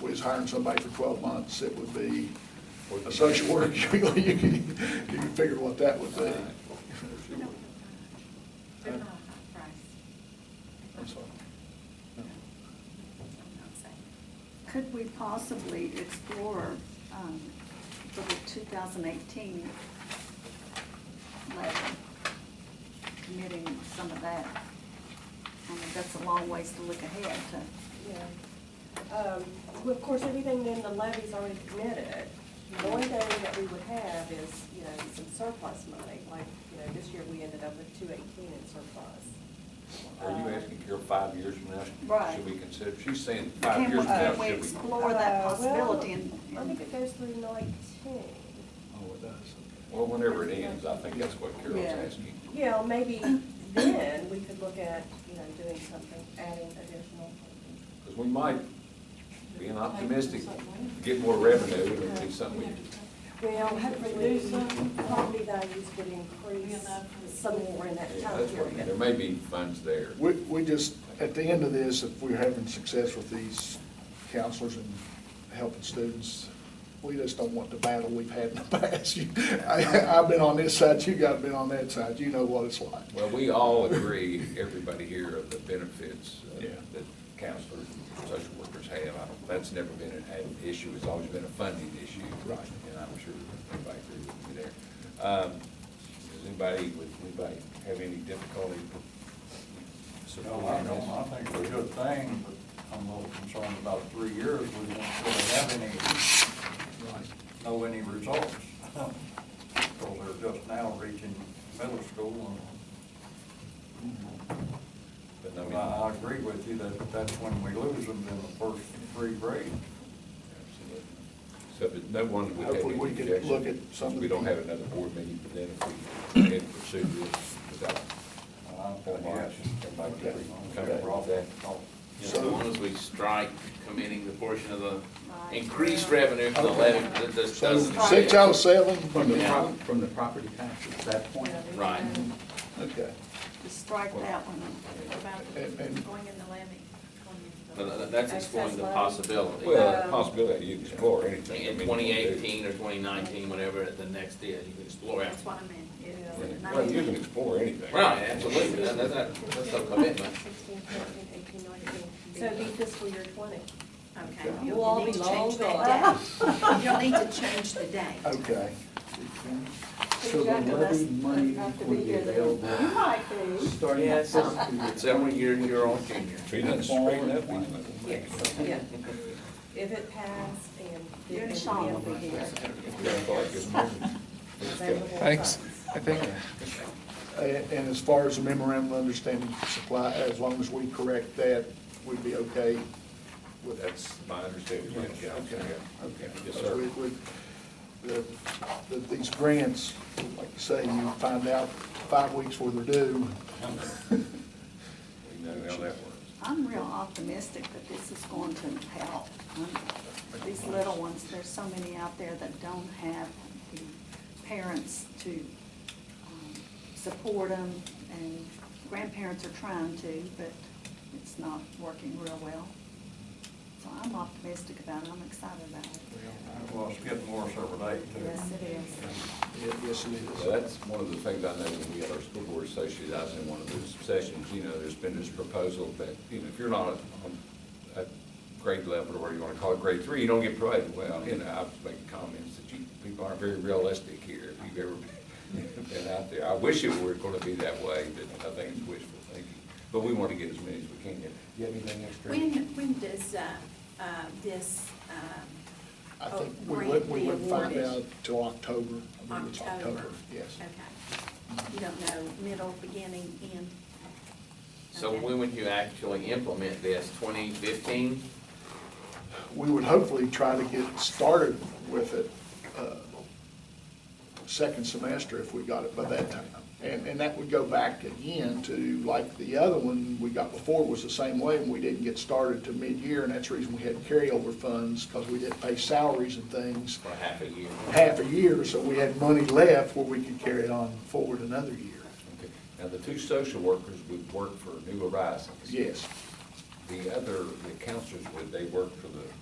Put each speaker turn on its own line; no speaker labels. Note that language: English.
was hiring somebody for 12 months, it would be a social worker. You can you can figure what that would be.
We don't have time. They're not
Huh?
a high price.
I'm sorry. No.
No. I'm not saying.
Could we possibly explore um, for the 2018 level, committing some of that? I mean, that's a long ways to look ahead to,
Yeah. Um, well, Of course, everything in the levy's already committed. The only thing that we would have is, you know, some surplus money, like, you know, this year we ended up with two eighteen in surplus.
Are you asking Carol five years from now,
Right.
should we consider, she's saying
can
five
we-
years from now,
can we
should we?
explore that
Uh, well,
possibility and?
I think
and-
it goes through nineteen.
Oh, it does.
Well, whenever it ends, I think that's what Carol's
Yeah.
asking.
You know, maybe then we could look at, you know, doing something, adding additional.
Because we might, being optimistic, get more revenue, and it'll be something we
Well,
reduce some.
Property values would increase
enough.
some more in that
yeah,
time
that's what,
period.
there may be funds there.
We, we just, at the end of this, if we're having success with these counselors and helping students, we just don't want the battle we've had in the past. You- I, I've been on this side, you guys have been on that side, you know what it's like.
Well, we all agree, everybody here, of the benefits uh,
Yeah.
that counselors and social workers have. I don't- That's never been an an issue, it's always been a funding issue.
Right.
And I'm sure everybody agrees with me there. Um, Does anybody, would anybody have any difficulty?
No, I don't, I think it's a good thing, but I'm a little concerned about three years, we won't really have any,
Right.
know any results. Because they're just now reaching middle school,
But I mean-
and I, I agree with you that that's when we lose them in the first three grades.
Absolutely. So, but no one would have
Hopefully
any
we can
objection,
look at some
since
of
we
the-
don't have another board meeting, but then if we had pursued this without.
I'm for March.
Everybody could agree.
Come back, Rob.
Yeah, As long as we strike committing the portion of the
Right.
increased revenue from the levy that this
So
doesn't.
six out of seven,
From the,
Yeah.
prop- from the property taxes, at that point,
Right.
okay.
Just strike that one.
What about
And- and-
going in the levy? Going in the-
But tha- That's exploring the possibility.
Well, the possibility you can explore anything. I
In
mean, you can do-
Um, twenty eighteen or twenty nineteen, whatever the next is, you can explore it.
That's what I meant. It is
Yeah.
at
Well, you
19.
can explore anything.
Right, absolutely, That- that- that- that's a commitment.
16, 17, 18, 19. So it'd be fiscal year twenty.
Okay.
We'll all
You'll
be
need to change
long
that date. You'll need to change the date.
Okay.
so the levy money would be available
You might be.
starting at first.
Several year, year old junior.
So you didn't straighten up anything.
Yes, yeah. If it passed and.
Your
and
song will be
if it
here.
That's all I can-
was available
Thanks.
funds.
I think,
And, Uh, and as far as the memorandum of understanding supply, as long as we correct that, we'd be okay with that.
That's my understanding. yeah, yeah,
Okay, okay.
Yes,
Because
sir.
we- we- the- the- These grants, like you say, you find out five weeks where they're due.
We know how that works.
I'm real optimistic that this is going to help. Um, These little ones, there's so many out there that don't have the parents to um, support them, and grandparents are trying to, but it's not working real well. So I'm optimistic about it, I'm excited about it.
Well, it's getting worse every day, too.
Yes, it is.
Yeah, Yes, it
So
is.
that's one of the things I know when we had our school board association, I was in one of those sessions, you know, there's been this proposal that, you know, if you're not on a grade level, or whatever you wanna call it, grade three, you don't get promoted. Well, you know, I was making comments that you, people aren't very realistic here, if you've ever been out there. I wish it were gonna be that way, but I think it's wishful thinking. But we wanna get as many as we can get. Do you have anything extra?
When, when does uh, uh, this, um,
I think
Oh,
we
grant
would, we
be
would find
awarded.
out till October. I believe it's
October?
October, yes.
Okay. You don't know middle, beginning, end?
So
Okay.
when would you actually implement this? Twenty fifteen?
We would hopefully try to get started with it uh, second semester if we got it by that time. And, and that would go back again to like the other one we got before was the same way and we didn't get started to mid-year and that's the reason we had carryover funds because we didn't pay salaries and things
For half a year.
half a year, so we had money left where we could carry it on forward another year.
Okay. Now, the two social workers would work for New Horizons.
Yes.
The other, the counselors, would they work for the